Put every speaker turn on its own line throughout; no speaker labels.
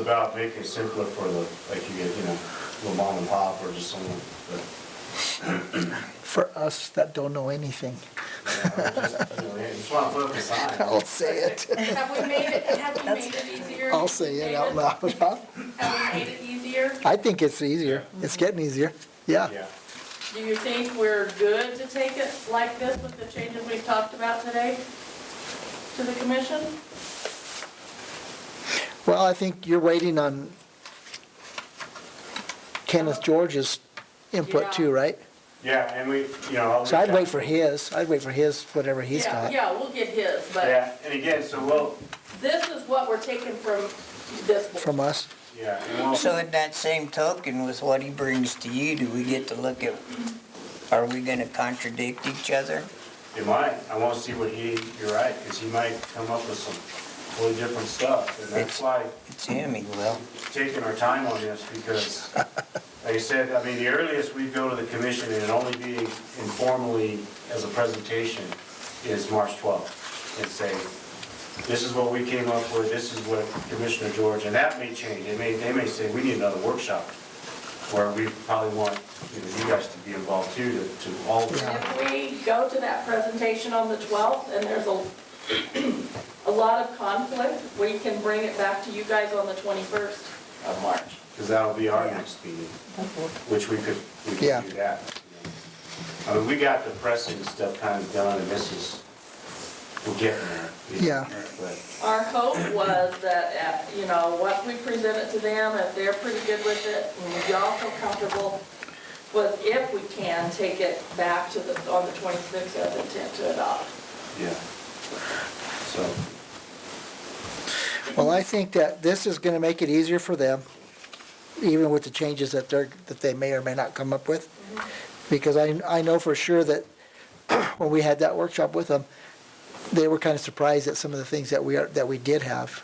About making it simpler for the, like you get, you know, little mom and pop or just someone that,
for us that don't know anything.
you know, just, you know, they just want to put up a sign.
I'll say it.
Have we made it, have we made it easier?
I'll say it out
David?
loud. huh?
Have we made it easier?
I think it's easier. It's getting easier. Yeah.
Yeah.
Do you think we're good to take it like this with the changes we've talked about today to the commission?
Well, I think you're waiting on Kenneth George's input too,
Yeah.
right?
Yeah, and we, you know. I'll
So I'd
reach
wait
out.
for his. I'd wait for his, whatever he's
Yeah,
got.
Yeah, we'll get his, but
Yeah, and again, so we'll,
this is what we're taking from this board.
From us?
yeah, and we'll,
So in that same token, with what he brings to you, do we get to look at, are we gonna contradict each other?
it might, I want to see what he, you're right, because he might come up with some totally different stuff. And that's
It's-
why
It's him, he will.
taking our time on this because, like I said, I mean, the earliest we go to the commission and it'd only be informally as a presentation is March 12th. And say, this is what we came up with, this is what Commissioner George, and that may change. They may, they may say, we need another workshop where we probably want, you know, you guys to be involved too, to, to all.
If we go to that presentation on the 12th and there's a, a lot of conflict, we can bring it back to you guys on the 21st of March.
Because that'll be our next meeting, which we could, we
Yeah.
could do that. I mean, we got the pressing stuff kind of done, and this is, we're getting there.
Yeah.
But,
Our hope was that, uh, you know, once we present it to them, if they're pretty good with it, and y'all feel comfortable, was if we can take it back to the, on the 26th as intent to adopt.
yeah. So,
Well, I think that this is gonna make it easier for them, even with the changes that they're, that they may or may not come up with. Because I, I know for sure that when we had that workshop with them, they were kind of surprised at some of the things that we are, that we did have,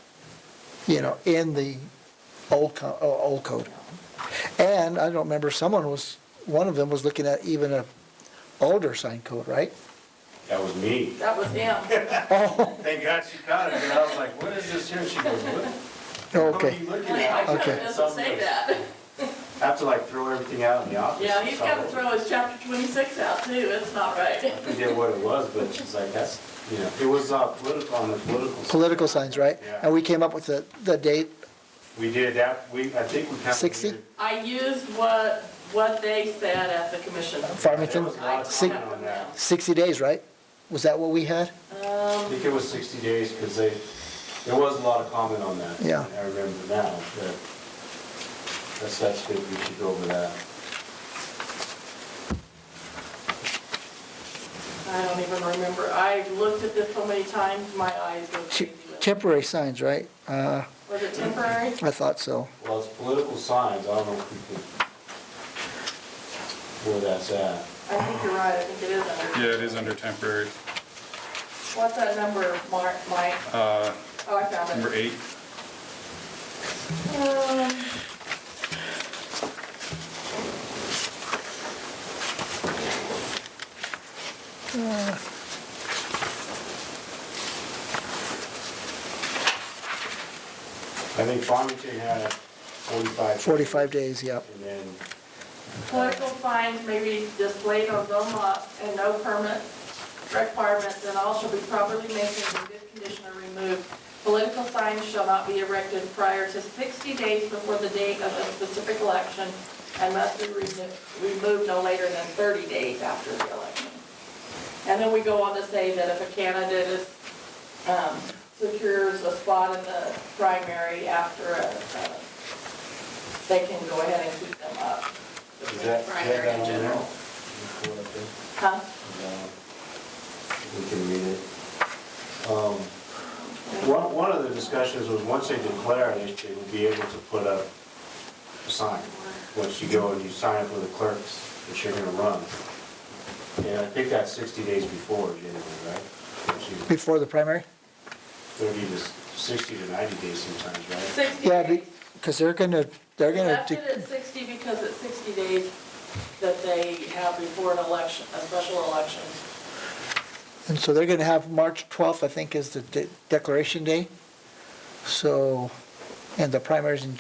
you know, in the old co, oh, old code. And I don't remember, someone was, one of them was looking at even a older sign code, right?
that was me.
That was him.
Thank God she caught it, because I was like, what is this here? She goes, what? What are
Okay,
you looking
My
at? I
code
Okay.
doesn't say that.
Have to like throw everything out in the office.
Yeah, he's gotta
So,
throw his chapter 26 out too, it's not right.
I forget what it was, but she's like, that's, you know, it was uh, political, on the political side.
political signs, right?
Yeah.
And we came up with the, the date,
We did that, we, I think we kind of.
60?
I used what, what they said at the commission.
There
Farmington,
was a lot of
Sig-
comment on that.
60 days, right? Was that what we had?
I think it was 60 days, because they, there was a lot of comment on that.
Yeah.
I remember now, but that's, that's good, we should go over that.
I don't even remember, I looked at this so many times, my eyes go
Te-
crazy. with it.
Temporary signs, right? Uh,
Was it temporary?
I thought so.
Well, it's political signs, I don't know if we could, where that's at.
I think you're right, I think it is under.
Yeah, it is under temporary.
What's that number, Mark, Mike?
Uh,
Oh, I found
Number
it.
eight,
Um,
I think Farmington had 45.
45 days, yep.
And then,
Political signs may be displayed on zone lots and no permit requirements, and all shall be properly maintained in good condition or removed. Political signs shall not be erected prior to 60 days before the date of a specific election and must be remo- removed no later than 30 days after the election. And then we go on to say that if a candidate is, um, secures a spot in the primary after a, uh, they can go ahead and keep them up.
is that, is that
Primary
that
in
on there?
general. Huh?
Uh, We can read it. Um, One, one of the discussions was, once they declare it, they would be able to put up a sign. Once you go and you sign up with the clerks, that you're gonna run. And I think that's 60 days before, generally, right? Once you-
Before the primary?
30 to s- 60 to 90 days sometimes, right?
60
Yeah,
days.
because they're gonna, they're
We
gonna,
left it
de-
at 60 because it's 60 days that they have before an election, a special election.
and so they're gonna have March 12th, I think, is the de- declaration day. So and the primaries in